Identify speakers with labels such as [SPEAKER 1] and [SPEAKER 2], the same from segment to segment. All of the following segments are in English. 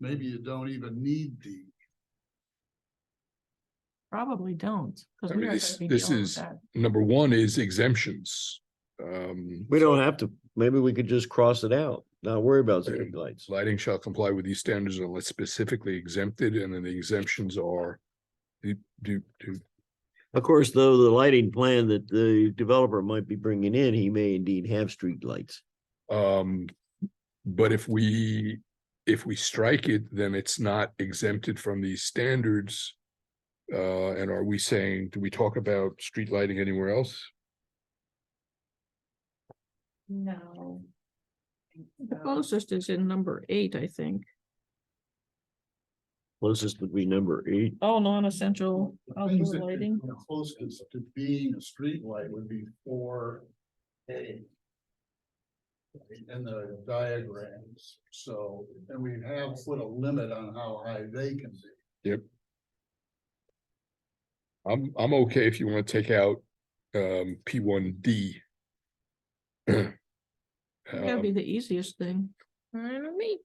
[SPEAKER 1] maybe you don't even need the.
[SPEAKER 2] Probably don't. 'cause
[SPEAKER 3] I
[SPEAKER 2] we
[SPEAKER 3] mean,
[SPEAKER 2] are gonna
[SPEAKER 3] this-
[SPEAKER 2] be
[SPEAKER 3] this
[SPEAKER 2] dealing with
[SPEAKER 3] is-
[SPEAKER 2] that.
[SPEAKER 3] Number one is exemptions. Um,
[SPEAKER 4] We don't have to, maybe we could just cross it out, not worry about city lights.
[SPEAKER 3] lighting shall comply with these standards unless specifically exempted, and then the exemptions are do, do, do,
[SPEAKER 4] Of course, though, the lighting plan that the developer might be bringing in, he may indeed have street lights.
[SPEAKER 3] um, but if we, if we strike it, then it's not exempted from these standards. Uh, and are we saying, do we talk about street lighting anywhere else?
[SPEAKER 5] No.
[SPEAKER 2] The closest is in number eight, I think.
[SPEAKER 4] Closest would be number eight.
[SPEAKER 2] All Oh, non-essential
[SPEAKER 1] the things
[SPEAKER 2] outdoor
[SPEAKER 1] that could
[SPEAKER 2] lighting.
[SPEAKER 1] come Closest to being a streetlight would be four A. In the diagrams, so, and we have put a limit on how high they can be.
[SPEAKER 3] I'm, I'm okay if you want to take out, um, P one D. Um,
[SPEAKER 2] That'd
[SPEAKER 3] uh,
[SPEAKER 2] be the easiest thing. me.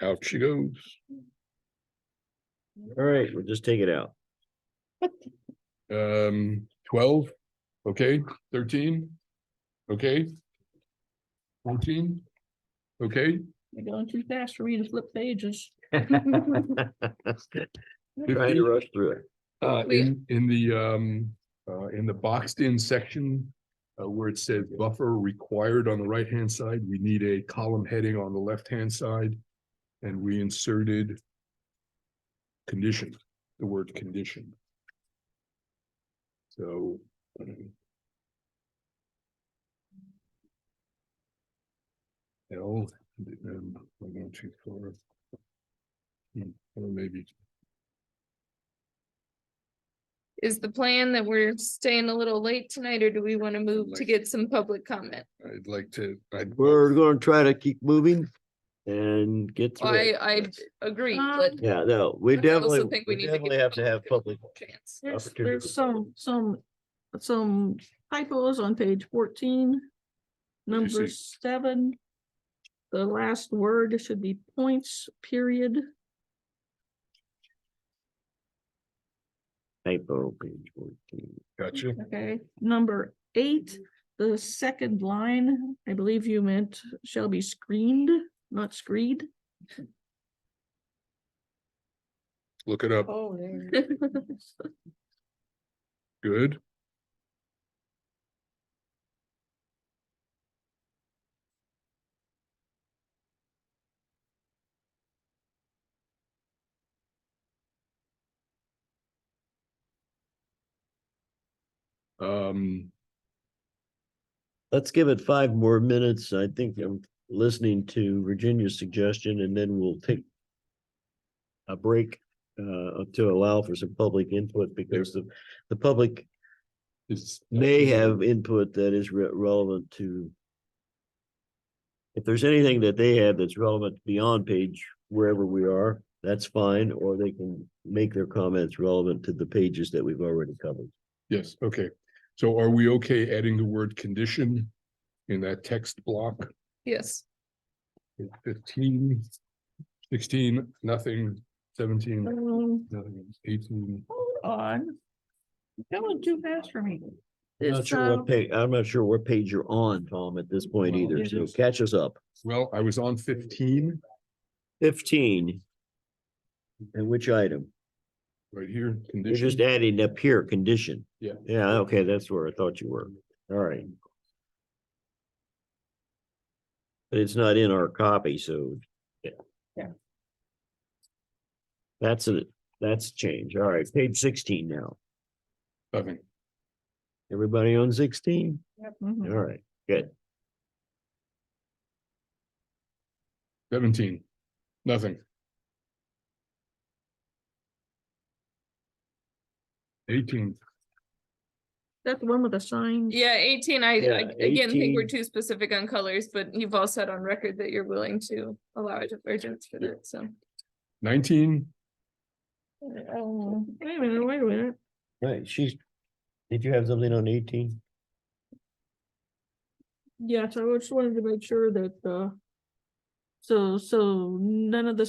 [SPEAKER 3] Out she goes.
[SPEAKER 4] All right, we'll just take it out.
[SPEAKER 3] Um, twelve, okay, thirteen, okay. Fourteen, okay,
[SPEAKER 2] You're going too fast for me to flip pages.
[SPEAKER 4] Trying to rush through it.
[SPEAKER 3] uh,
[SPEAKER 2] Wait.
[SPEAKER 3] in, in the, um, uh, in the boxed in section. Uh, where it says buffer required on the right hand side, we need a column heading on the left hand side. And we inserted. Condition, the word condition. So. L, um, one, one, two, four. Hmm, Or maybe
[SPEAKER 5] Is the plan that we're staying a little late tonight, or do we want to move to
[SPEAKER 3] Like-
[SPEAKER 5] get some public comment?
[SPEAKER 3] I'd like to, I'd,
[SPEAKER 4] We're gonna try to keep moving and get through
[SPEAKER 5] I,
[SPEAKER 4] it.
[SPEAKER 5] I agree,
[SPEAKER 2] Um,
[SPEAKER 5] but.
[SPEAKER 4] Yeah, no, we
[SPEAKER 5] I also
[SPEAKER 4] definitely,
[SPEAKER 5] think we
[SPEAKER 4] we
[SPEAKER 5] need to
[SPEAKER 4] definitely
[SPEAKER 5] give
[SPEAKER 4] have to have public.
[SPEAKER 5] Chance.
[SPEAKER 2] There's,
[SPEAKER 4] Opportunity for
[SPEAKER 2] there's some, some, some typos on page fourteen.
[SPEAKER 3] you see?
[SPEAKER 2] Number seven. The last word should be points, period.
[SPEAKER 4] Typo page fourteen.
[SPEAKER 3] gotcha.
[SPEAKER 2] Okay, number eight, the second line, I believe you meant shall be screened, not screed.
[SPEAKER 3] Look it up.
[SPEAKER 2] Oh.
[SPEAKER 3] Good. Um,
[SPEAKER 4] Let's give it five more minutes. I think I'm listening to Virginia's suggestion and then we'll take a break uh to allow for some public input because the the public
[SPEAKER 3] is.
[SPEAKER 4] may
[SPEAKER 3] Mm-hmm.
[SPEAKER 4] have input that is re- relevant to if there's anything that they have that's relevant beyond page wherever we are, that's fine, or they can make their comments relevant to the pages that we've already covered.
[SPEAKER 3] Yes, okay. So are we okay adding the word condition in that text block?
[SPEAKER 5] Yes,
[SPEAKER 3] Fifteen, sixteen, nothing, seventeen,
[SPEAKER 2] Um,
[SPEAKER 3] nothing, eighteen.
[SPEAKER 2] hold on. You're Going too fast for me.
[SPEAKER 4] I'm not
[SPEAKER 2] This,
[SPEAKER 4] sure
[SPEAKER 2] uh,
[SPEAKER 4] what page, I'm not sure what page you're on, Tom, at this point
[SPEAKER 3] um, Well,
[SPEAKER 4] either,
[SPEAKER 3] it
[SPEAKER 4] so
[SPEAKER 3] is-
[SPEAKER 4] catch us up.
[SPEAKER 3] Well, I was on fifteen
[SPEAKER 4] Fifteen. And which item?
[SPEAKER 3] right here.
[SPEAKER 4] You're just
[SPEAKER 3] Condition.
[SPEAKER 4] adding up here, condition.
[SPEAKER 3] Yeah.
[SPEAKER 4] Yeah, okay, that's where I thought you were. All right. But it's not in our copy, so. Yeah.
[SPEAKER 2] Yeah.
[SPEAKER 4] That's a that's a change. All right, page sixteen now.
[SPEAKER 3] Nothing.
[SPEAKER 4] Everybody on sixteen? All
[SPEAKER 2] mhm.
[SPEAKER 4] right, good.
[SPEAKER 3] Seventeen, nothing. Eighteen,
[SPEAKER 2] That's the one with the sign.
[SPEAKER 5] yeah, eighteen, I,
[SPEAKER 4] Yeah,
[SPEAKER 5] I again think we're
[SPEAKER 4] 18.
[SPEAKER 5] too specific on colors, but you've all said on record that you're willing to allow a divergence for that, so.
[SPEAKER 3] nineteen,
[SPEAKER 2] Oh, Wait a minute, wait a minute.
[SPEAKER 4] Right, she's, did you have something on eighteen?
[SPEAKER 2] Yes, I just wanted to make sure that, uh, so, so none of the